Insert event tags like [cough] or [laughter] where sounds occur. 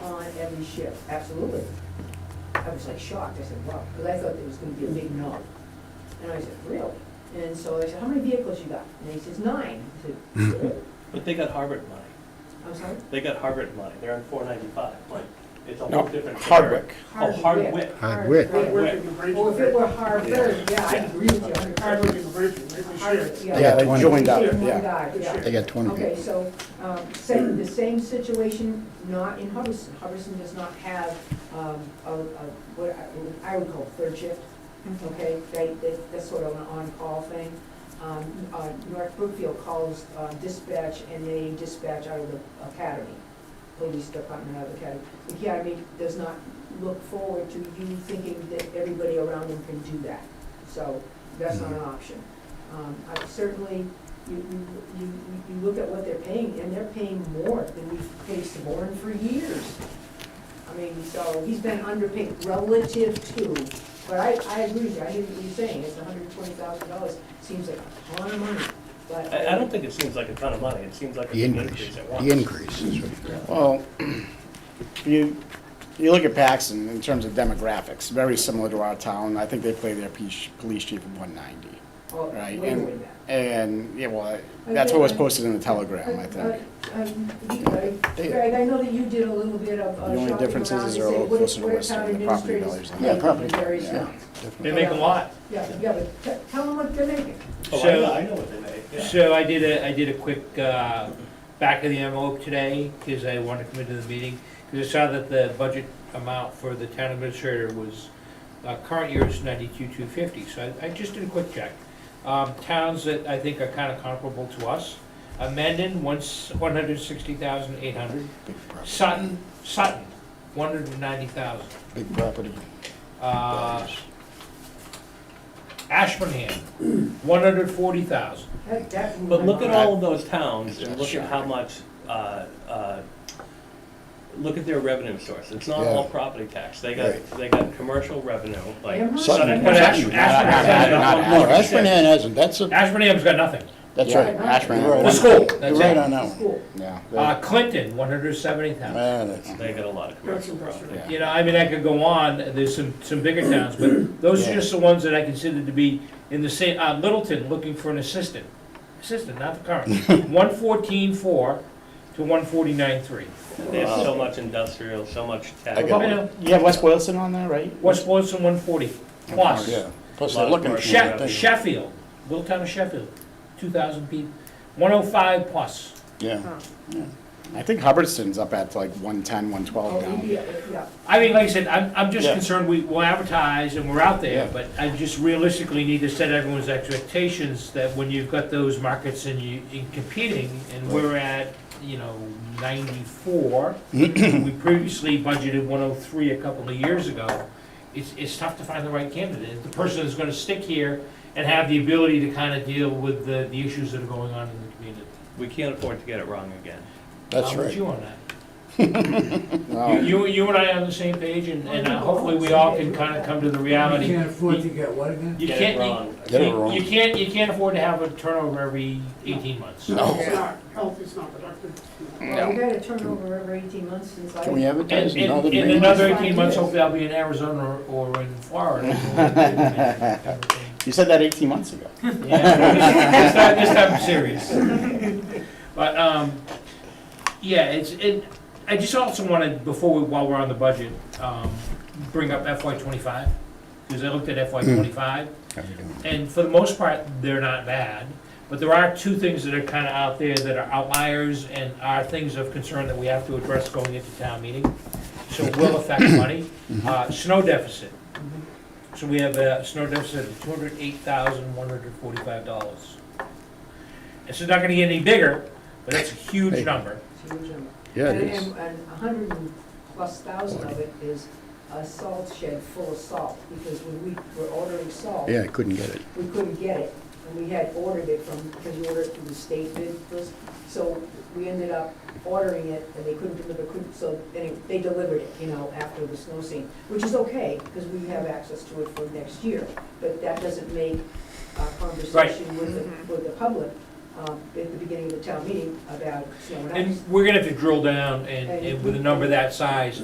every shift, absolutely. I was like shocked, I said, wow, because I thought there was gonna be a big no. And I said, really? And so I said, how many vehicles you got? And he says, nine. I said, really? But they got Harvard money. I'm sorry? They got Harvard money. They're on four ninety-five. Like, it's a No, whole different. Hardwick. Oh, Hardwick. Hardwick. Hardwick. Hardwick. Well, if it were Harvard, yeah, I agree with you. Hardwick. Hardwick and Bridgeton, they were Harvard, shared. yeah. Yeah, they 20. joined up, Shit, my yeah. God, yeah. They got twenty Okay, people. so, um, same, the same situation, not in Hubbardson. Hubbardson does not have, um, a, a, what I- what I would call third shift, okay? They, they, that's sort of an on-call thing. Um, uh, North Brookfield calls uh, dispatch and they dispatch out of the academy, police department out of the academy. The academy does not look forward to you thinking that everybody around them can do that. So that's not Mm-hmm. an option. Um, I certainly, you, you, you, you look at what they're paying, and they're paying more than we've paid Saborn for years. I mean, so he's been underpaid relative to, but I, I agree with you, I hear what you're saying, it's hundred and twenty thousand dollars, seems like a ton of money, but. I, I don't think it seems like a ton of money. It seems like The it's an increase, increase at once. the increase is what you got. Well, you, you look at Paxton in terms of demographics, very similar to our town. I think they play their police police chief at one ninety, Oh, right? way And- more than that. And, yeah, well, that's what was posted in the telegram, I Uh, think. uh, um, you- uh, Greg, I know that you did a little bit of uh, The only shopping differences around is and they're say, all what- closer to what are Western, town the property administrators values are- making Yeah, property, in various yeah. towns? They make a lot. Yeah, yeah, but te- tell them what they're making. Oh, I So- know, I know what they make, yeah. So I did a, I did a quick uh, back of the envelope today, because I wanted to come into the meeting, because I saw that the budget amount for the town administrator was, uh, current year is ninety-two, two fifty, so I I just did a quick check. Um, Towns that I think are kind of comparable to us, uh, Mendon, once, one hundred sixty thousand, eight hundred, Big property, Sutton, Sutton, one hundred ninety thousand. Uh, big property. values. Ashburnham, one hundred forty thousand. That- that- But look at all of those towns and It's look at how shocking. much, uh, uh, look at their revenue source. It's not Yeah. all property tax. They got, Right. they got commercial revenue, like. Amherst? Southern- But Ash- Southern- Ashburnham- Southern- Not No, Ashburnham hasn't, that's a, Ashburnham's got nothing. That's Yeah. right, Ashburn. You're right. The school, that's You're right it. on that one, School. yeah. Uh, Clinton, one hundred seventy thousand. Yeah, that's- They got a lot of commercial property. yeah. You know, I mean, I could go on, there's some, some bigger towns, but those are Yeah. just the ones that I consider to be in the same, uh, Littleton, looking for an assistant. Assistant, not [laughs] the current. One fourteen four to one forty-nine three. They have so much industrial, so much tech. I got it. You have West Boylston on there, right? West Boylston, one forty plus. Yeah, plus they're looking. for She- it, I She- think. Sheffield, little town of Sheffield, two thousand people, one oh five plus. Yeah, yeah. I think Hubbardston's up at like 110, 112 Oh, now. yeah, yeah. I mean, like I said, I'm, I'm just Yeah. concerned we, we'll advertise and we're out there, Yeah. but I just realistically need to set everyone's expectations that when you've got those markets and you, in competing, and we're at, you know, ninety-four, we previously budgeted one oh three a couple of years ago, it's, it's tough to find the right candidate, the person that's gonna stick here and have the ability to kind of deal with the, the issues that are going on in the community. We can't afford to get it wrong again. that's I'm with right. you on that. No. [laughs] You, you- you and I are on the same page, and, and uh, hopefully we all can kind of come to the reality. You can't afford to get what again? You Get can't- it you- wrong. Get it you- wrong. You can't, you can't afford to have a turnover every eighteen months. No. It's not, health is not productive. Well, We've had a turnover every eighteen months since I. Can we And, advertise another and- and meeting? another Five eighteen months, years. hopefully I'll be in Arizona or or in [laughs] Florida. You said that 18 months ago. Yeah. This time, this time I'm serious. But, um, yeah, it's, it, I just also wanted, before, we while we're on the budget, um, bring up FY twenty-five, because I looked at FY twenty-five, and for the most part, they're not bad. But there are two things that are kind of out there that are outliers and are things of concern that we have to address going into town meeting. So it will affect money. Uh, Snow deficit. So we have a snow deficit of two hundred eight thousand, one hundred forty-five dollars. This is not gonna get any bigger, but that's a huge Hey. number. It's a huge number. Yeah, And, it is. and and a hundred and plus thousand of it is a salt shed full of salt, because when we were ordering salt, Yeah, I couldn't get it. we couldn't get it. And we had ordered it from, because we ordered it through the state bid first, so we ended up ordering it, and they couldn't deliver, couldn't, so, anyway, they delivered it, you know, after the snow scene, which is okay, because we have access to it for next year, but that doesn't make our conversation with the, with the public, um, at the beginning of the town meeting about snow and ice. And we're gonna have to drill down and, and with a number that size,